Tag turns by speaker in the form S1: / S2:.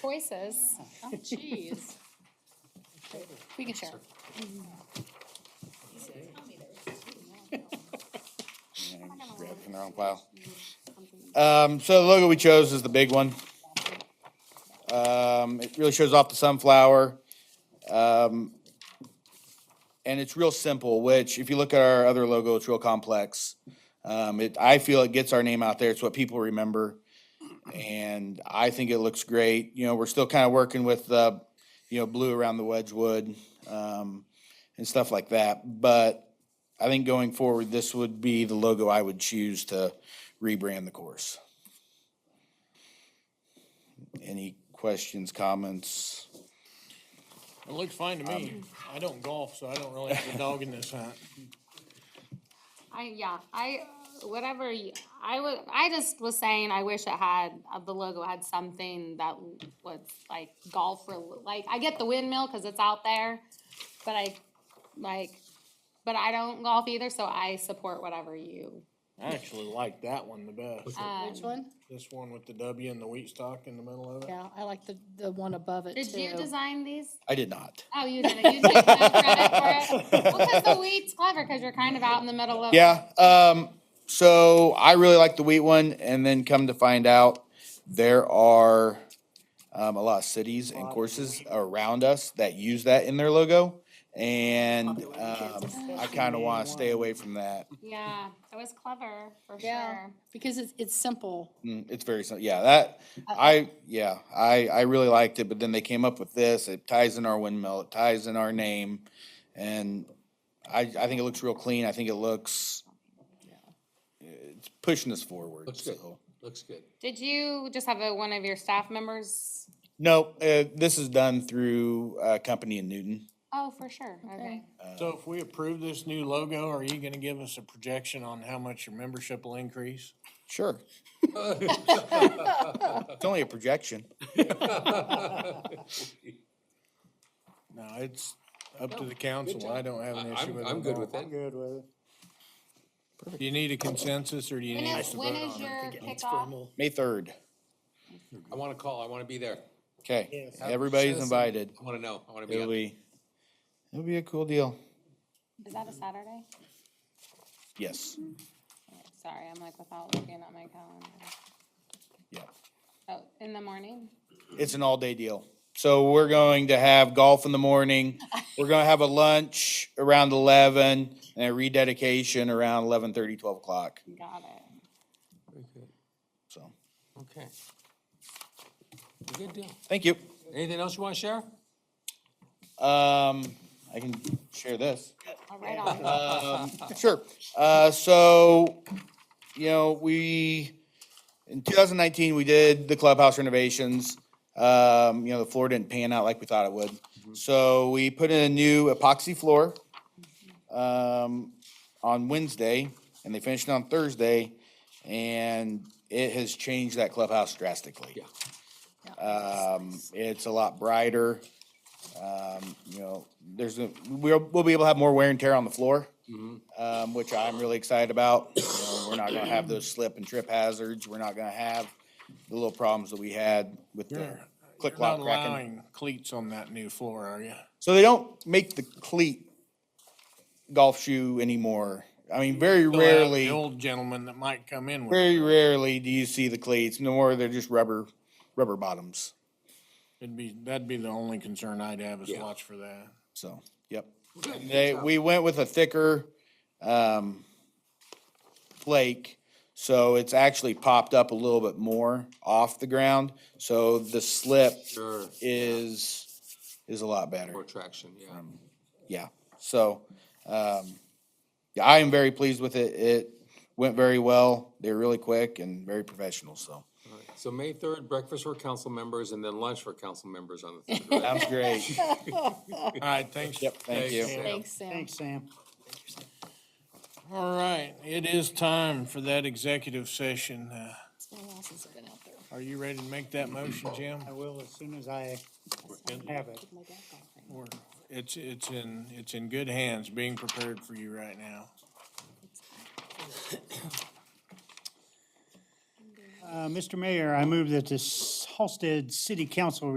S1: choices.
S2: Oh, jeez.
S1: We can share.
S3: Grab from their own pile. Um, so the logo we chose is the big one. Um, it really shows off the sunflower. Um, and it's real simple, which if you look at our other logo, it's real complex. Um, it, I feel it gets our name out there. It's what people remember. And I think it looks great. You know, we're still kind of working with, uh, you know, blue around the Wedgewood, um, and stuff like that. But I think going forward, this would be the logo I would choose to rebrand the course. Any questions, comments?
S4: It looks fine to me.
S1: Um,
S4: I don't golf, so I don't really have a dog in this hunt.
S1: I, yeah, I, whatever, you- I would, I just was saying, I wish it had, uh, the logo had something that was like golf, rel- like, I get the windmill, cause it's out there, but I, like, but I don't golf either, so I support whatever you.
S4: I actually like that one the best.
S1: um,
S2: Which one?
S4: This one with the W and the wheat stalk in the middle of it.
S2: Yeah, I like the, the one above it
S1: Did you
S2: too.
S1: design these?
S3: I did not.
S1: Oh, you did, it. you take no credit for it? Well, cause the weed's clever, cause you're kind of out in the middle of.
S3: Yeah, um, so I really like the wheat one, and then come to find out, there are um, a lot of cities and courses around us that use that in their logo. And um, I kind of want to stay away from that.
S1: Yeah, it was clever, for
S2: Yeah,
S1: sure.
S2: because it's, it's simple.
S3: Mm, It's very, sim- yeah, that, I, yeah, I, I really liked it, but then they came up with this, it ties in our windmill, it ties in our name. And I, I think it looks real clean, I think it looks, it's pushing us forward,
S5: Looks good.
S3: so.
S5: Looks good.
S1: Did you just have a, one of your staff members?
S3: No, uh, this is done through a company in Newton.
S1: Oh, for sure, okay.
S4: So if we approve this new logo, are you gonna give us a projection on how much your membership will increase?
S3: Sure. It's only a projection.
S4: No, it's up to the council. I don't have an
S5: I-
S4: issue
S5: I'm-
S4: with it.
S5: I'm good with
S4: that.
S5: it.
S4: good with it. Do you need a consensus or do you
S1: When
S4: need us
S1: is,
S4: to
S1: when
S4: vote
S1: is
S4: on it?
S1: your kickoff?
S3: May third,
S5: I want to call. I want to be there.
S3: okay, everybody's invited,
S5: I want to know. I want to be.
S3: it'll
S5: up.
S3: be, it'll be a cool deal,
S1: Is that a
S4: Mm-hmm.
S1: Saturday?
S3: yes,
S1: Sorry, I'm like without looking at my calendar.
S3: yeah.
S1: Oh, in the morning?
S3: It's an all-day deal. So we're going to have golf in the morning. We're gonna have a lunch around eleven and a rededication around 11:30, 12 o'clock,
S1: Got it.
S5: Very good.
S3: so.
S5: Okay. Good deal.
S3: Thank you.
S5: Anything else you want to share?
S3: Um, I can share this.
S1: All right on.
S3: Sure. Uh, so, you know, we, in two thousand nineteen, we did the clubhouse renovations. Um, you know, the floor didn't pan out like we thought it would. So we put in a new epoxy floor, um, on Wednesday and they finished it on Thursday. And it has changed that clubhouse drastically.
S5: Yeah.
S3: Um, it's a lot brighter. Um, you know, there's a, we'll, we'll be able to have more wear and tear on the floor. Um, which I'm really excited about. You know, we're not gonna have those slip and trip hazards. We're not gonna have the little problems that we had with the
S4: You're-
S3: click
S4: You're not
S3: lock cracking.
S4: allowing cleats on that new floor, are you?
S3: So they don't make the cleat golf shoe anymore. I mean, very
S4: Still have
S3: rarely.
S4: The old gentleman that might come in with,
S3: Very rarely do you see the cleats, no more they're just rubber, rubber bottoms,
S4: it'd be, that'd be the only concern I'd have is
S5: Yeah.
S4: watch for that.
S3: so, yep.
S5: Good.
S3: They, we went with a thicker, um, flake, so it's actually popped up a little bit more off the ground. So the slip
S5: Sure.
S3: is, is a lot better,
S5: More traction. Yeah.
S3: yeah, so, um, yeah, I am very pleased with it, it went very well, they're really quick and very professional, so.
S5: All right. So May third, breakfast for council members, and then lunch for council members on the third. right?
S3: Sounds great,
S4: All right, thanks.
S3: yep, thank you.
S4: Sam.
S2: Thanks, Sam.
S6: Thanks, Sam.
S4: All right, it is time for that executive session. Uh,
S2: Someone else has been out there.
S4: Are you ready to make that motion, Jim?
S6: I will as soon as I have it.
S2: Oh My dad golf thing.
S4: We're- It's, it's in, it's in good hands, being prepared for you right now.
S6: Uh, Mr. Mayor, I move that this Halsted City Council